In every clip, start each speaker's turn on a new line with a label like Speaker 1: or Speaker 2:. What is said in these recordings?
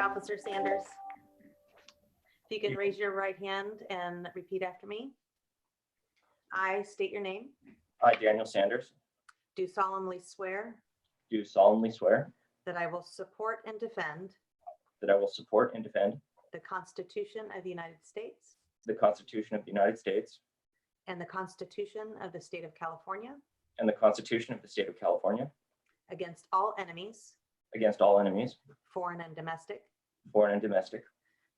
Speaker 1: Officer Sanders. If you could raise your right hand and repeat after me. I state your name,
Speaker 2: I, Daniel Sanders,
Speaker 1: do solemnly swear
Speaker 2: do solemnly swear
Speaker 1: that I will support and defend
Speaker 2: that I will support and defend
Speaker 1: the Constitution of the United States
Speaker 2: the Constitution of the United States
Speaker 1: and the Constitution of the State of California
Speaker 2: and the Constitution of the State of California
Speaker 1: against all enemies,
Speaker 2: against all enemies,
Speaker 1: foreign and domestic,
Speaker 2: foreign and domestic,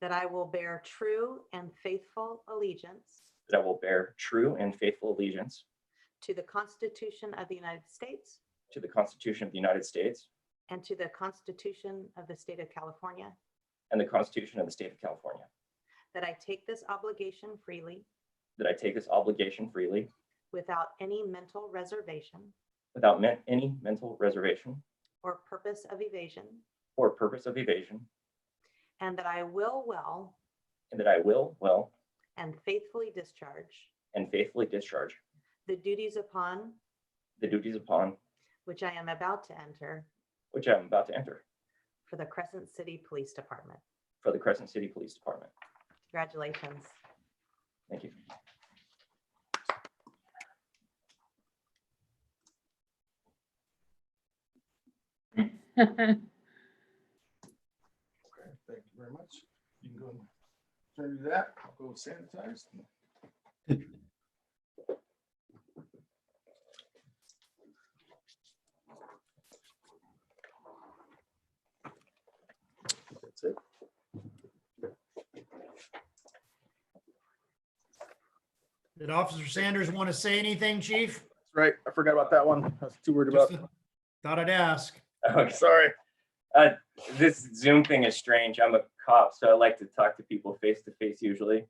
Speaker 1: that I will bear true and faithful allegiance
Speaker 2: that I will bear true and faithful allegiance
Speaker 1: to the Constitution of the United States
Speaker 2: to the Constitution of the United States
Speaker 1: and to the Constitution of the State of California,
Speaker 2: and the Constitution of the State of California,
Speaker 1: that I take this obligation freely
Speaker 2: that I take this obligation freely
Speaker 1: without any mental reservation
Speaker 2: without men- any mental reservation
Speaker 1: or purpose of evasion,
Speaker 2: or purpose of evasion,
Speaker 1: and that I will well
Speaker 2: and that I will well
Speaker 1: and faithfully discharge
Speaker 2: and faithfully discharge
Speaker 1: the duties upon
Speaker 2: the duties upon
Speaker 1: which I am about to enter
Speaker 2: which I am about to enter
Speaker 1: for the Crescent City Police Department.
Speaker 2: for the Crescent City Police Department.
Speaker 1: Congratulations.
Speaker 2: Thank you.
Speaker 3: Okay, thank you very much. You can go and turn to that, I'll go sanitize. That's it.
Speaker 4: Did Officer Sanders want to say anything, Chief?
Speaker 3: Right, I forgot about that one. I was too worried about.
Speaker 4: Just Thought I'd ask.
Speaker 2: Okay.
Speaker 3: Sorry.
Speaker 2: this Zoom thing is strange. I'm a cop, so I like to talk to people face to face usually.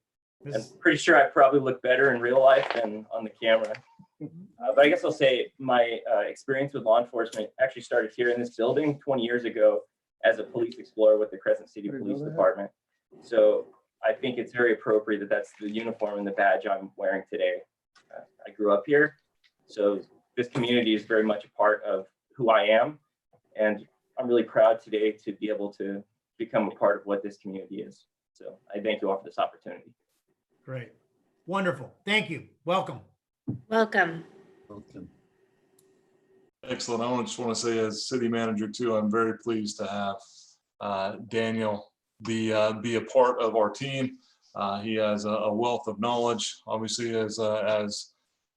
Speaker 2: I'm
Speaker 4: This-
Speaker 2: pretty sure I probably look better in real life than on the camera. Uh, but I guess I'll say my uh, experience with law enforcement actually started here in this building 20 years ago as a police explorer with the Crescent City
Speaker 3: Pretty
Speaker 2: Police
Speaker 3: good.
Speaker 2: Department. So I think it's very appropriate that that's the uniform and the badge I'm wearing today. Uh, I grew up here, so this community is very much a part of who I am. And I'm really proud today to be able to become a part of what this community is. So I thank you all for this opportunity.
Speaker 4: Great. Wonderful. Thank you. Welcome.
Speaker 5: Welcome.
Speaker 6: Excellent. I want just want to say as city manager too, I'm very pleased to have uh, Daniel be, uh, be a part of our team. Uh, He has a- a wealth of knowledge, obviously, as, uh, as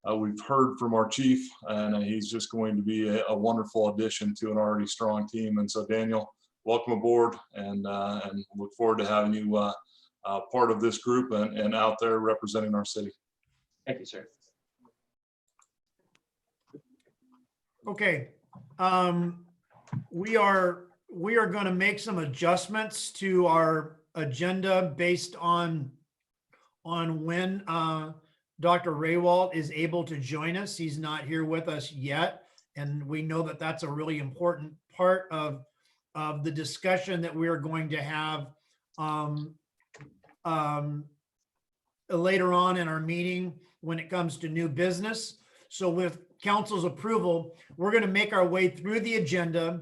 Speaker 6: uh, we've heard from our chief, and uh, he's just going to be a a wonderful addition to an already strong team. And so Daniel, welcome aboard and, uh, and look forward to having you uh, uh, part of this group and, and out there representing our city.
Speaker 2: Thank you, sir.
Speaker 4: Okay. Um, we are, we are going to make some adjustments to our agenda based on, on when, uh, Dr. Raywald is able to join us. He's not here with us yet. And we know that that's a really important part of, of the discussion that we're going to have, um, um, later on in our meeting when it comes to new business. So with council's approval, we're going to make our way through the agenda.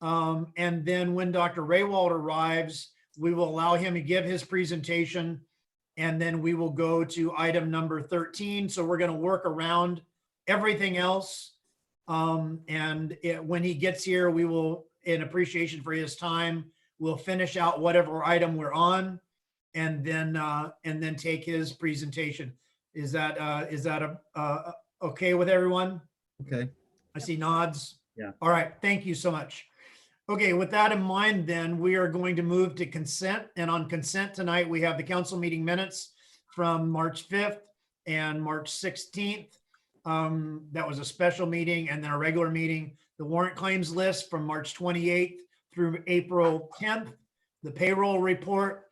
Speaker 4: Um, and then when Dr. Raywald arrives, we will allow him to give his presentation. And then we will go to item number thirteen. So we're going to work around everything else. Um, and it- when he gets here, we will, in appreciation for his time, we'll finish out whatever item we're on. And then, uh, and then take his presentation. Is that, uh, is that a, a, okay with everyone?
Speaker 7: Okay.
Speaker 4: I see nods.
Speaker 7: Yeah.
Speaker 4: All right, thank you so much. Okay, with that in mind, then, we are going to move to consent, and on consent tonight, we have the council meeting minutes from March 5th and March 16th. Um, That was a special meeting and then a regular meeting. The warrant claims list from March 28th through April 10th. The payroll report,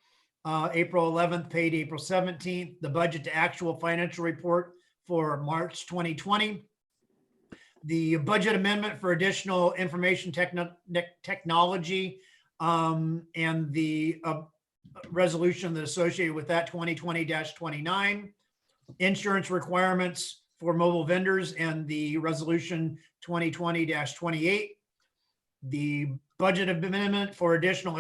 Speaker 4: uh, April 11th, paid April 17th. The budget to actual financial report for March 2020. The budget amendment for additional information techno- nec- technology um, and the uh, resolution that associated with that 2020-29. Insurance requirements for mobile vendors and the resolution 2020-28. The budget amendment for additional